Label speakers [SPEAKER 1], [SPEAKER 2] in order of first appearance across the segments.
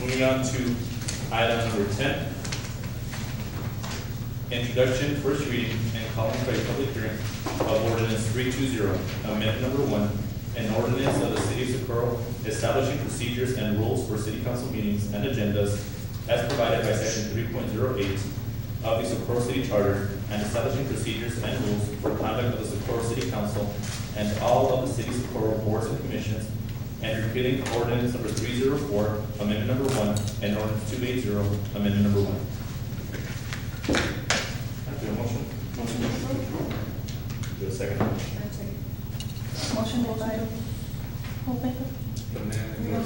[SPEAKER 1] Moving on to item number ten. Introduction, first reading, and calling for a public hearing of ordinance three two zero, amendment number one, an ordinance of the city of Socorro establishing procedures and rules for city council meetings and agendas as provided by section three point zero eight of the Socorro City Charter and establishing procedures and rules for conduct of the Socorro City Council and all of the city Socorro boards and commissions and repealing ordinance number three zero four, amendment number one, and ordinance two eight zero, amendment number one. Do you have a motion?
[SPEAKER 2] Motion to approve.
[SPEAKER 1] Do you have a second?
[SPEAKER 2] Motion made by Holbaker
[SPEAKER 1] Well,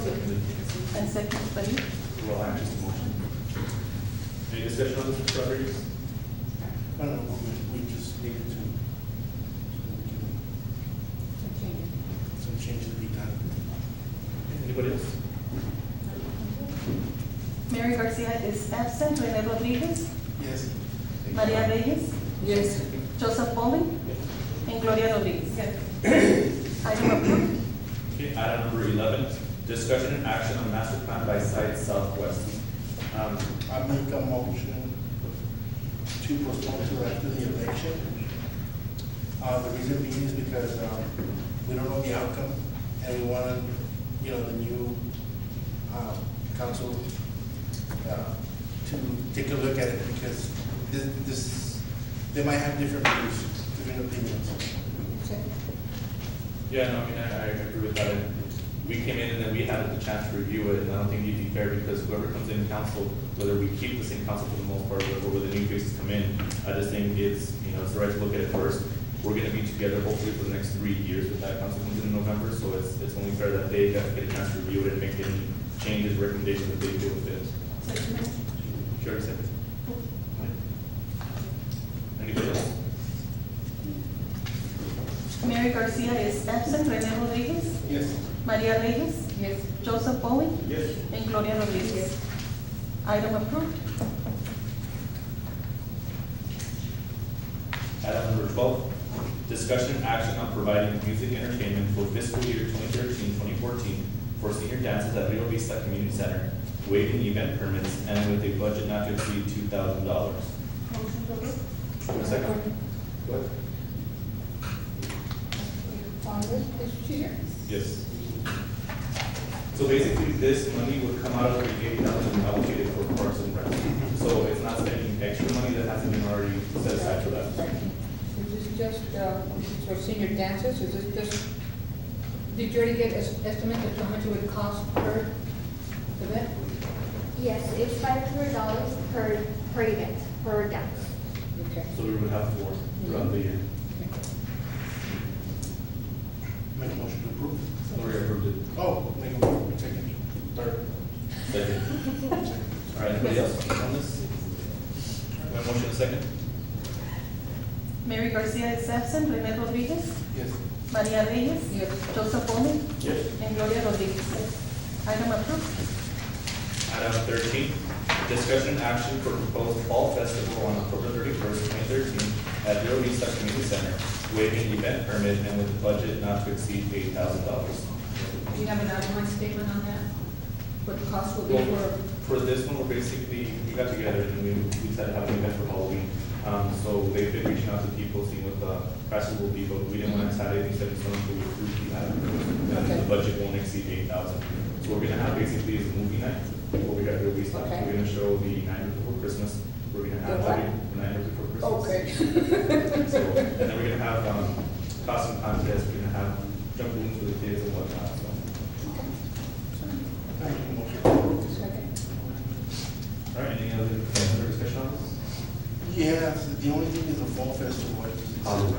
[SPEAKER 2] and seconded by you.
[SPEAKER 1] I'm just a motion. Any discussion on this, Mr. Rodriguez?
[SPEAKER 3] I don't know, we we just needed to, to do some changes to be done.
[SPEAKER 1] Anybody else?
[SPEAKER 2] Mary Garcia is absent. Rene Rodriguez,
[SPEAKER 3] Yes.
[SPEAKER 2] Maria Reyes,
[SPEAKER 4] Yes.
[SPEAKER 2] Joseph Pauling, and Gloria Rodriguez.
[SPEAKER 4] Yes.
[SPEAKER 2] Item approved.
[SPEAKER 1] Okay, item number eleven, discussion and action on master plan by site southwest. Um,
[SPEAKER 3] I make a motion to postpone to after the election. Uh, the reason being is because, um, we don't know the outcome, and we want, you know, the new, um, council, uh, to take a look at it, because this, this, they might have different views, different opinions.
[SPEAKER 1] Yeah, no, I mean, I, I agree with that. And We came in and then we had the chance to review it, and I don't think it'd be fair because whoever comes in council, whether we keep the same council for the most part, or whether new faces come in, I just think it's, you know, it's the right to look at it first. We're gonna be together hopefully for the next three years if that council comes in in November, so it's, it's only fair that they get get a chance to review it and make any changes, recommendations that they feel fit. Sure, accept. Anybody else?
[SPEAKER 2] Mary Garcia is absent. Rene Rodriguez,
[SPEAKER 3] Yes.
[SPEAKER 2] Maria Reyes,
[SPEAKER 4] Yes.
[SPEAKER 2] Joseph Pauling,
[SPEAKER 1] Yes.
[SPEAKER 2] and Gloria Rodriguez. Item approved.
[SPEAKER 1] Item number twelve, discussion and action on providing music entertainment for fiscal year 2013-2014 for senior dances at Rio Vista Community Center, waiving event permits and with a budget not to exceed two thousand dollars.
[SPEAKER 4] Motion to approve.
[SPEAKER 1] Second. What?
[SPEAKER 4] Congress, Mr. Chair.
[SPEAKER 1] Yes. So basically, this money would come out of the eight thousand allocated for parks and rec. So it's not spending extra money that hasn't been already set aside for that.
[SPEAKER 4] Is this just, uh, this is for senior dancers, is this just, did you already get an estimate of how much it would cost per event?
[SPEAKER 5] Yes, it's five hundred dollars per, per event, per dance.
[SPEAKER 4] Okay.
[SPEAKER 1] So we would have four throughout the year.
[SPEAKER 3] Make a motion to approve.
[SPEAKER 1] Lori approved it.
[SPEAKER 3] Oh, make a motion, second, third.
[SPEAKER 1] Second. All right, anybody else on this? We have a motion and a second?
[SPEAKER 2] Mary Garcia is absent. Rene Rodriguez,
[SPEAKER 3] Yes.
[SPEAKER 2] Maria Reyes,
[SPEAKER 4] Yes.
[SPEAKER 2] Joseph Pauling,
[SPEAKER 1] Yes.
[SPEAKER 2] and Gloria Rodriguez. Item approved.
[SPEAKER 1] Item thirteen, discussion and action for proposed fall festival on October thirty-first, twenty thirteen, at Rio Vista Community Center, waiving event permit and with a budget not to exceed eight thousand dollars.
[SPEAKER 4] Do you have an outline statement on that? What the cost will be for,
[SPEAKER 1] For this one, we're basically, we got together and we, we decided to have an event for Halloween. Um, so they've been reaching out to people, seeing what the prices will be, but we didn't want to decide anything, so we approved the item.
[SPEAKER 4] Okay.
[SPEAKER 1] The budget won't exceed eight thousand. So what we're gonna have basically is a movie night, what we got to release, like,
[SPEAKER 4] Okay.
[SPEAKER 1] we're gonna show the night before Christmas, we're gonna have
[SPEAKER 4] The what?
[SPEAKER 1] the night before Christmas.
[SPEAKER 4] okay.
[SPEAKER 1] So, and then we're gonna have, um, costume contests, we're gonna have jump rooms for the kids and whatnot, so.
[SPEAKER 3] I make a motion to approve.
[SPEAKER 4] Second.
[SPEAKER 1] All right, any other, any other discussion on this?
[SPEAKER 3] Yes, the only thing is the fall festival. It's-